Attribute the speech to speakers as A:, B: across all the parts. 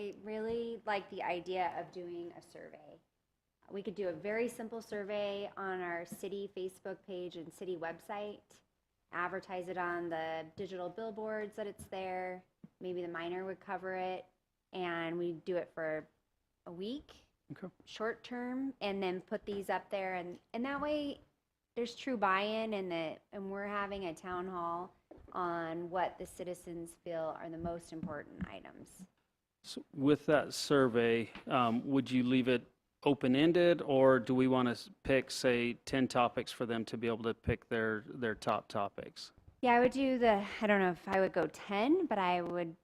A: I really like the idea of doing a survey. We could do a very simple survey on our city Facebook page and city website, advertise it on the digital billboards that it's there. Maybe the miner would cover it, and we do it for a week,
B: Okay.
A: short term, and then put these up there, and and that way, there's true buy-in, and that and we're having a town hall on what the citizens feel are the most important items.
B: So With that survey, um, would you leave it open-ended, or do we want to pick, say, 10 topics for them to be able to pick their, their top topics?
A: Yeah, I would do the, I don't know if I would go 10, but I would,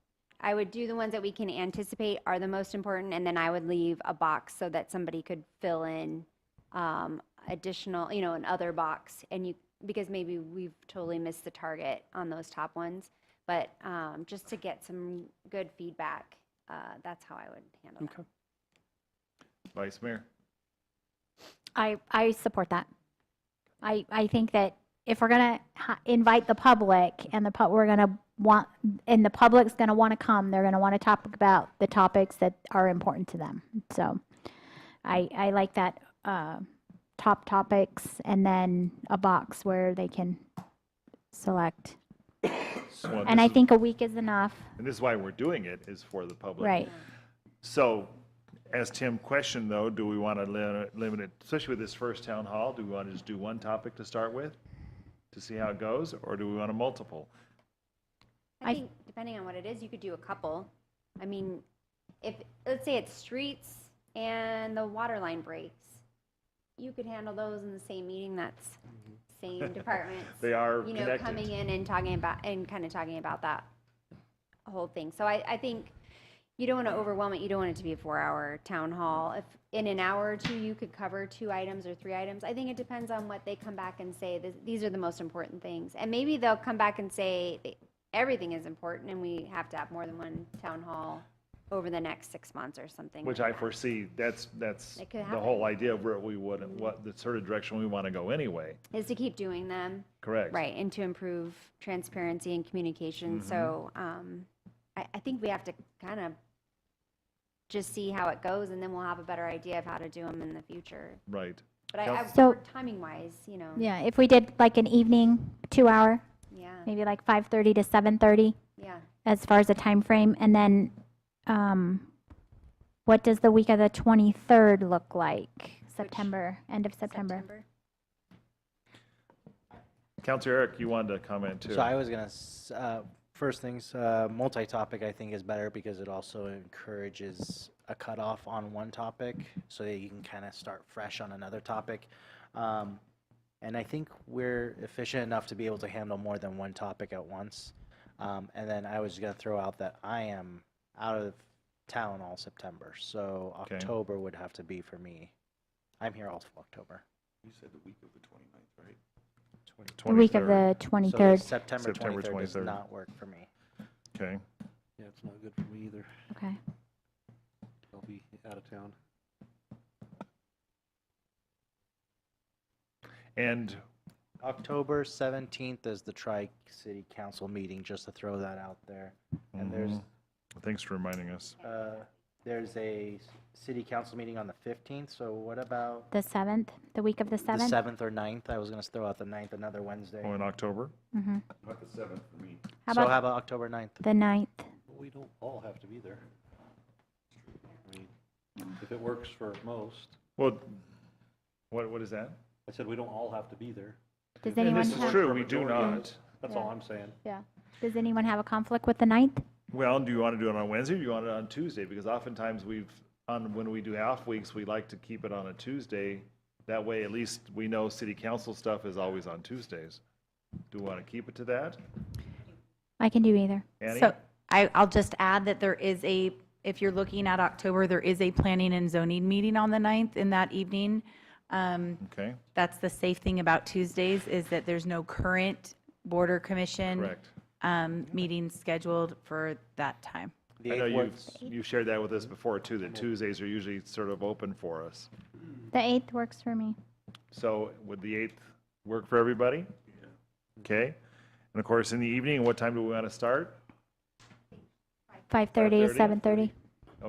A: I would do the ones that we can anticipate are the most important, and then I would leave a box so that somebody could fill in um, additional, you know, an other box, and you, because maybe we've totally missed the target on those top ones, but um, just to get some good feedback, uh, that's how I would handle that.
B: Okay.
C: Vice Mayor.
D: I, I support that. I, I think that if we're gonna ha- invite the public and the pub, we're gonna want, and the public's gonna want to come, they're gonna want to talk about the topics that are important to them. So I, I like that, uh, top topics and then a box where they can select.
C: Well,
D: And
C: this
D: I
C: is-
D: think a week is enough.
C: And this is why we're doing it, is for the public.
D: Right.
C: So, as Tim questioned though, do we want to limit it, especially with this first town hall, do we want to just do one topic to start with? To see how it goes, or do we want a multiple?
A: I
D: I-
A: think depending on what it is, you could do a couple. I mean, if let's say it's streets and the water line breaks, you could handle those in the same meeting. That's same departments.
C: Mm-hmm. They are
A: you know
C: connected.
A: coming in and talking about and kind of talking about that whole thing. So I, I think you don't want to overwhelm it. You don't want it to be a four-hour town hall. If in an hour or two you could cover two items or three items, I think it depends on what they come back and say. This, these are the most important things, and maybe they'll come back and say they, everything is important, and we have to have more than one town hall over the next six months or something.
C: Which I foresee, that's, that's
A: It could
C: the
A: happen.
C: whole idea of where we would, what, the sort of direction we want to go anyway,
A: is to keep doing them.
C: correct?
A: Right, and to improve transparency and communication. So
C: Mm-hmm.
A: um, I, I think we have to kind of just see how it goes, and then we'll have a better idea of how to do them in the future.
C: Right.
A: But I,
C: Counsel-
A: I
D: So-
A: timing wise, you know,
D: Yeah, if we did like an evening, two hour,
A: yeah,
D: maybe like five thirty to seven thirty.
A: yeah.
D: as far as the time frame and then um what does the week of the 23rd look like september end of september,
C: Counselor Eric, you wanted to comment too.
E: So I was gonna, s- uh, first things, uh, multi-topic I think is better because it also encourages a cutoff on one topic so that you can kind of start fresh on another topic. Um, and I think we're efficient enough to be able to handle more than one topic at once. Um, and then I was gonna throw out that I am out of town all September, so
C: Okay.
E: October would have to be for me. I'm here all of October.
D: the week of
C: 23rd.
D: the
E: So
D: 23rd
E: September
C: September
E: twenty-third does
C: 23rd.
E: not work for me.
C: Okay.
F: Yeah, it's not good for me either.
D: okay
F: I'll be out of town.
C: And
E: October 17th is the Tri-City Council meeting, just to throw that out there. And there's,
C: thanks for reminding us.
E: uh, there's a s- city council meeting on the 15th, so what about
D: the 7th the week of the
E: the
D: 7th
E: 7th or 9th? I was going to throw out the 9th, another Wednesday.
C: Oh, in October?
D: mm-hmm. how
E: So
D: about
E: how about October 9th?
D: the 9th
F: But we don't all have to be there. I mean, if it works for most,
C: Well, what, what is that?
F: I said we don't all have to be there.
D: does
C: And
D: anyone
C: this is
D: have,
C: true, we do not.
F: That's all I'm saying.
D: yeah does anyone have a conflict with the 9th
C: Well, do you want to do it on Wednesday or do you want it on Tuesday? Because oftentimes we've, on, when we do half weeks, we like to keep it on a Tuesday. That way, at least we know city council stuff is always on Tuesdays. Do we want to keep it to that?
D: i can do either
C: Annie?
G: So I, I'll just add that there is a, if you're looking at October, there is a planning and zoning meeting on the 9th in that evening. Um,
C: Okay,
G: That's the safe thing about Tuesdays is that there's no current border commission.
C: correct.
G: Um, meeting scheduled for that time.
E: The
C: I know
E: 8th
C: you've,
E: works,
C: you've shared that with us before too, that Tuesdays are usually sort of open for us.
D: the 8th works for me
C: So would the 8th work for everybody? Okay. And of course, in the evening, what time do we want to start?
D: 5.30 to
C: 5:30?
D: 7.30